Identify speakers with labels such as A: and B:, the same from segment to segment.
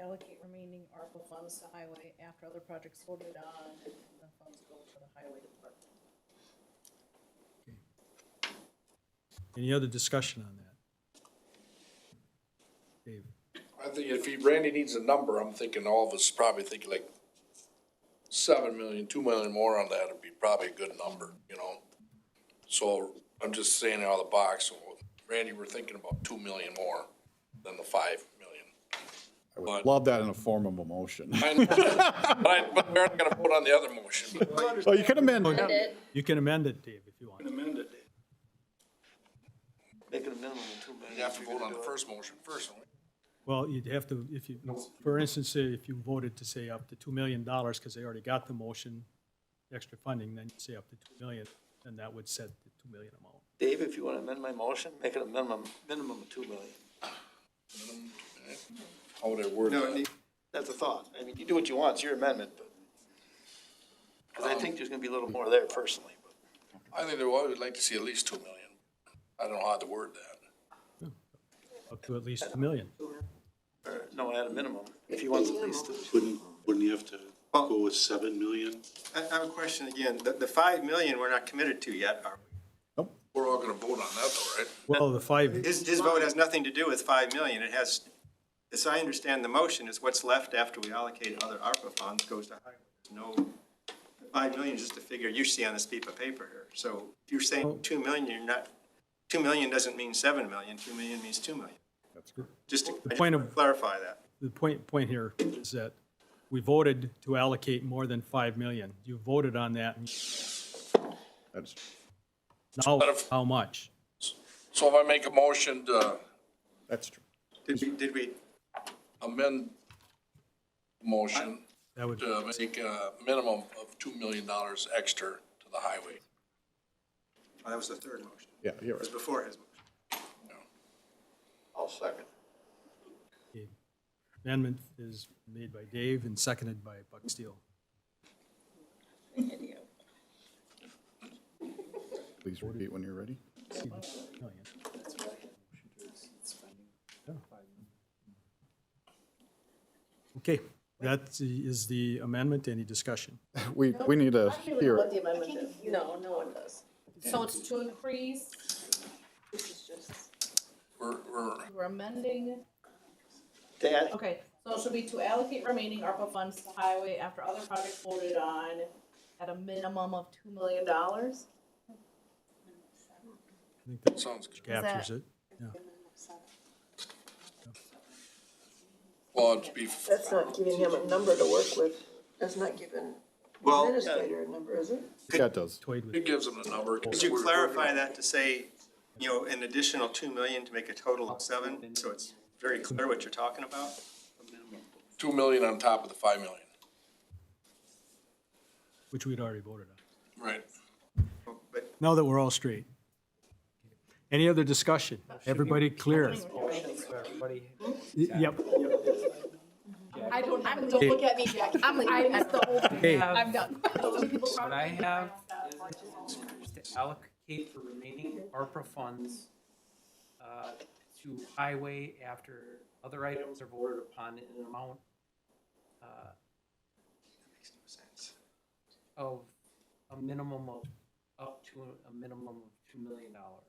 A: allocate remaining ARPA funds to highway after other projects voted on, and the funds go to the highway department.
B: Any other discussion on that? Dave,
C: I think if he, Randy needs a number, I'm thinking all of us probably think like seven million, two million more on that would be probably a good number, you know? So I'm just saying out of the box, so Randy, we're thinking about two million more than the five million.
D: I
C: But-
D: would love that in a form of a motion.
C: I know, But, I- but we're not gonna vote on the other motion.
D: Well, you can amend
E: Amend
D: it.
E: it.
B: you can amend it, Dave, if you want.
F: amend it. Make it a minimum of two million.
C: You have to vote on the first motion first. don't we?
B: Well, you'd have to, if you, for instance, if you voted to say up to $2 million, because they already got the motion, extra funding, then you'd say up to 2 million, and that would set the 2 million amount.
F: Dave, if you wanna amend my motion, make it a minimum, minimum of two million.
C: How would I word
F: No, it
C: that?
F: need- that's a thought. I mean, you do what you want, it's your amendment, but. Cause I think there's gonna be a little more there personally, but.
C: I think that, well, I would like to see at least two million. I don't know how to word that.
B: Up to at least 2 million.
F: or, No, at a minimum, if he wants at least two.
G: Wouldn't, wouldn't you have to go with seven million?
H: I I have a question again. The, the five million, we're not committed to yet, are we?
C: We're all gonna vote on that though, right?
B: Well, the five,
H: His, his vote has nothing to do with five million. It has, as I understand the motion, is what's left after we allocate other ARPA funds goes to highway. There's No, five million is just a figure you see on this piece of paper here. So if you're saying two million, you're not, two million doesn't mean seven million. Two million means two million. Just to
B: The
H: I just
B: point
H: wanna
B: of-
H: clarify that.
B: the point, point here is that we voted to allocate more than 5 million. You voted on that, and
D: That's-
B: now,
C: But if-
B: how much?
C: So if I make a motion to
D: That's true.
H: Did we, did we,
C: amend the motion
B: That would,
C: to make a minimum of $2 million extra to the highway.
H: oh, that was the third motion.
D: Yeah, you're
H: It was
D: right.
H: before his. motion.
F: I'll second.
B: the amendment is made by Dave and seconded by Buck Steele.
A: Idiot.
D: Please repeat when you're ready.
B: Million. Oh, Okay, that is the amendment. Any discussion?
D: We, we need to hear it.
A: amendment No, no one does. So it's to increase, this is just,
C: We're, we're,
A: we're amending
F: Dad,
A: Okay, so it should be to allocate remaining ARPA funds to highway after other projects voted on at a minimum of two million dollars?
B: I think that
C: sounds good.
B: captures it.
C: Well, it'd be,
I: That's not giving him a number to work with. That's not giving
H: Well,
I: administrator a number, is it?
D: Yeah, it does.
B: Toyed with
C: it gives them the number.
H: Could you clarify that to say, you know, an additional two million to make a total of seven, so it's very clear what you're talking about?
C: 2 million on top of the 5 million.
B: which we'd already voted on.
C: Right.
H: But
B: Now that we're all straight. Any other discussion? Everybody clear? Yep.
A: I don't, I'm, don't look at me, Jackie. I'm, I missed the whole
B: Hey.
A: thing. I'm done.
J: What I have is to allocate the remaining ARPA funds uh, to highway after other items are voted upon in an amount uh, of a minimum of, up to a minimum of $2 million. Or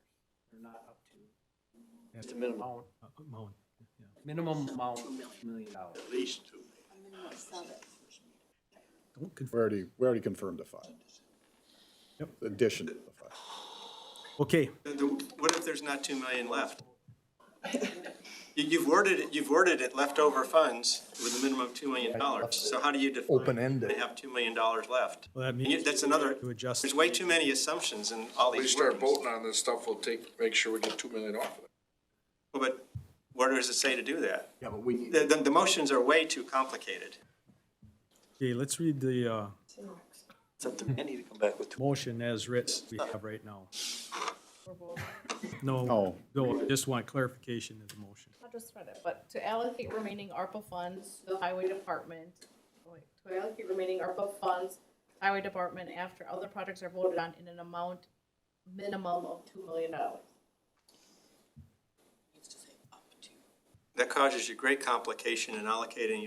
J: not up to.
F: Just a minimum.
J: Amount,
B: Uh, Moen.
J: minimum amount of $2 million.
B: Don't
D: We
B: conf-
D: already, we already confirmed the five.
B: Yep.
D: Addition to the five.
B: Okay,
H: the- the- what if there's not two million left? You- You've worded it, you've worded it leftover funds with a minimum of two million dollars, so how do you define? Open-ended. They have two million dollars left.
B: well, that
H: And you-
B: means
H: That's another,
B: to adjust.
H: there's way too many assumptions in all
C: We
H: these
C: start
H: wordings. Well,
C: voting on this stuff, we'll take, make sure we get 2 million off of it.
H: But where does it say to do that?
G: Yeah, but we need.
H: The, the- the motions are way too complicated.
B: Okay, let's read the uh,
F: it's up to Randy to come back with two.
B: motion as written we have right now. No,
D: No.
B: no, I just want clarification of the motion.
A: I just read it, but to allocate remaining ARPA funds to the highway department, oh wait, to allocate remaining ARPA funds, to highway department after other projects are voted on in an amount minimum of two million dollars.
H: That causes you great complication in allocating